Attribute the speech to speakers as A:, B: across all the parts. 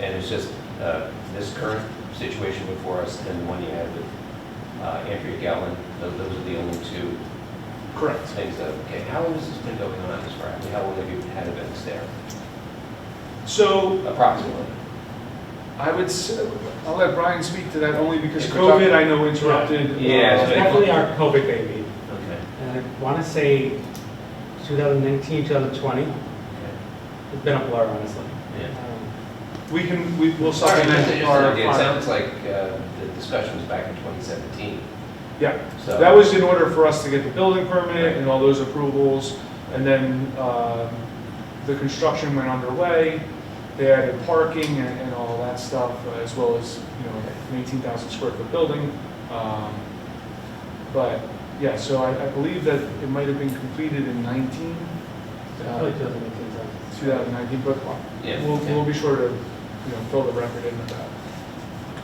A: And it's just uh, this current situation before us and the one you had with uh, Andrea Gallen, tho- those are the only two
B: Correct.
A: things that, okay, how long has this been going on as far, I mean, how long have you had events there?
B: So
A: Approximately.
B: I would, s- I'll let Brian speak to that only because
A: If we're talking-
B: COVID, I know, interrupted.
A: Yeah,
B: uh,
A: so-
C: Definitely our COVID baby.
A: Okay.
C: And I want to say 2019, 2020, it's been a blur, honestly.
A: Yeah.
C: Um,
B: We can, we will
A: All right, just-
B: supplement
A: just
B: our.
A: an idea. It sounds like uh, the discussion was back in 2017,
B: Yeah,
A: so.
B: that was in order for us to get the building permit and all those approvals. And then um, the construction went underway. They added parking and and all that stuff, uh, as well as, you know, an 18,000 square foot building. Um, But, yeah, so I I believe that it might have been completed in 19.
C: so
B: uh,
C: Probably 2019,
B: 2019, but
A: Yeah.
B: we'll, we'll be sure to, you know, fill the record in with that.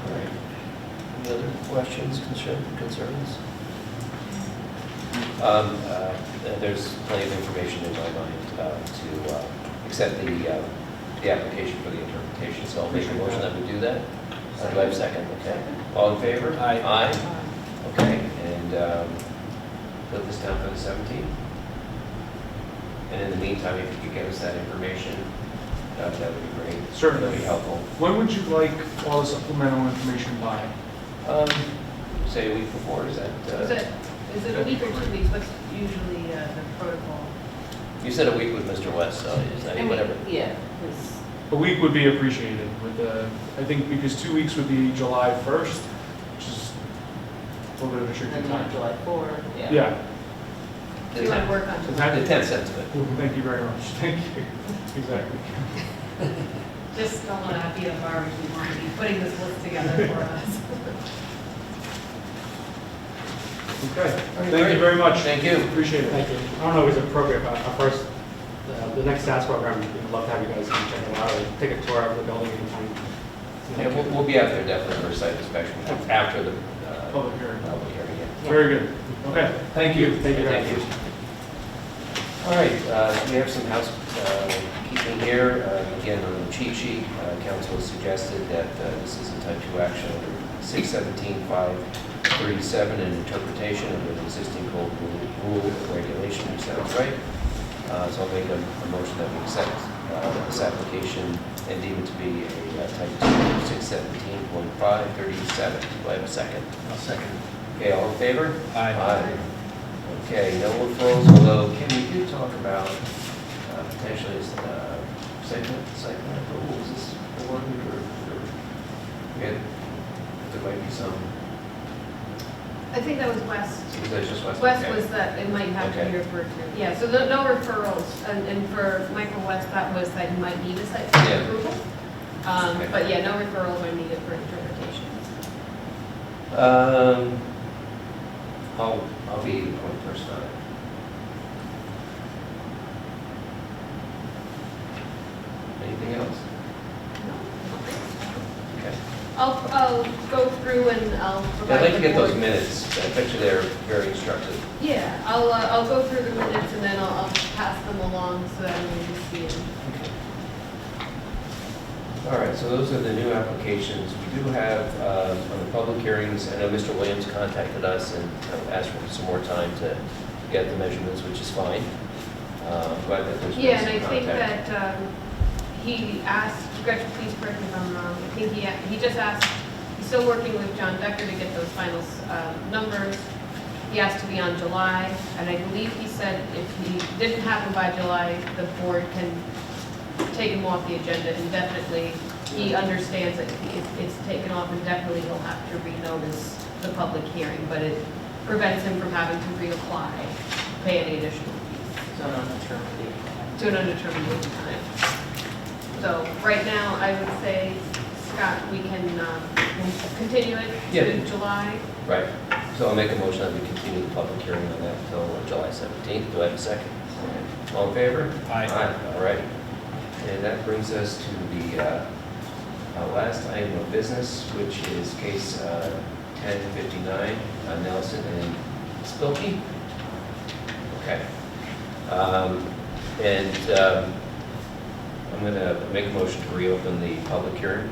D: All right. Any other questions, concern- concerns?
A: Um, uh, There's plenty of information in my mind uh, to uh, accept the, uh, the application for the interpretation, so I'll make a motion that we do that. Uh, Do I have a second? Okay. All in favor? Aye. Aye? Okay, and um, put this down for the 17th. And in the meantime, if you could get us that information, uh, that would be great.
B: Certainly.
A: That'd be helpful.
B: When would you like all the supplemental information by?
A: Um, Say a week before, is that? uh,
E: Is it, is it a week or two weeks? What's usually uh, the protocol?
A: You said a week with Mr. West, so is that, whatever.
F: Yeah, it's,
B: A week would be appreciated with the, I think, because two weeks would be July 1st, which is a little bit of a tricky
F: and not
B: time.
F: July 4, yeah.
B: Yeah,
E: Do you want to work on
B: The
E: July?
B: time-
A: The 10th sounds good.
B: thank you very much, thank you, exactly.
E: Just don't want to be a garbage, we want to be putting this list together for us.
B: Okay, thank you very much.
A: Thank you.
B: Appreciate it.
C: Thank you. I don't know if it's appropriate, but our first, uh, the next SAS program, we'd love to have you guys come check it out, or take a tour of the building anytime. you know.
A: Yeah, we'll, we'll be out there definitely for a site inspection after the, uh,
B: Public hearing.
A: public hearing. yeah.
B: Very good. Okay, thank you.
C: Thank you very
A: Thank you. All right, uh, we have some housekeeping here. Uh, Again, on the cheat sheet, uh, council has suggested that uh, this is a type 2 action under 617537, an interpretation of an existing code rule- rule or regulation, which sounds right. Uh, So I'll make a a motion that we accept uh, this application and deem it to be a uh, type 2 under 617.537. Do I have a second?
D: I'll second.
A: Okay, all in favor?
D: Aye.
A: Okay, no referrals, although, Kim, uh, we did talk about uh, potentially uh, site plan, site plan approval, is this the one we were, we were- we had, there might be some,
E: I think that was West.
A: is that just West?
E: West
A: Okay.
E: was the, it might have to be referred to. Yeah, so no no referrals. And, and for Michael West, that was that you might need a site
A: Yeah.
E: plan approval. Um,
A: Okay.
E: But yeah, no referrals are needed for interpretations.
A: Um, I'll, I'll be the point person on it. Anything else? Okay.
E: I'll, I'll go through and I'll
A: I'd
E: provide.
A: like to
E: the
A: get those
E: board-
A: minutes, I bet you they're very instructive.
E: Yeah, I'll, uh, I'll go through the minutes and then I'll, I'll pass them along so that everyone can see them.
A: All right, so those are the new applications. We do have, uh, on the public hearings, I know Mr. Williams contacted us and kind of asked for some more time to get the measurements, which is fine. Uh, Glad that there's
E: Yeah,
A: been
E: and I
A: some
E: think
A: contact.
E: that um, he asked, Gretchen, please correct me if I'm wrong, I think he, he just asked, he's still working with John Decker to get those final um, numbers. He asked to be on July, and I believe he said if he didn't happen by July, the board can take him off the agenda indefinitely. He understands that if it's taken off indefinitely, he'll have to renotice the public hearing, but it prevents him from having to reapply, pay any additional fees
F: So on the term of the-
E: to an undetermined time. So right now, I would say, Scott, we can um, continue it
A: Yeah.
E: to July.
A: Right, so I'll make a motion that we continue the public hearing on that until July 17th. Do I have a second? All in favor?
D: Aye.
A: All right. And that brings us to the uh, uh, last item of business, which is case uh, 1059, uh, Nelson and Spilkey. Okay. Um, And um, I'm going to make a motion to reopen the public hearing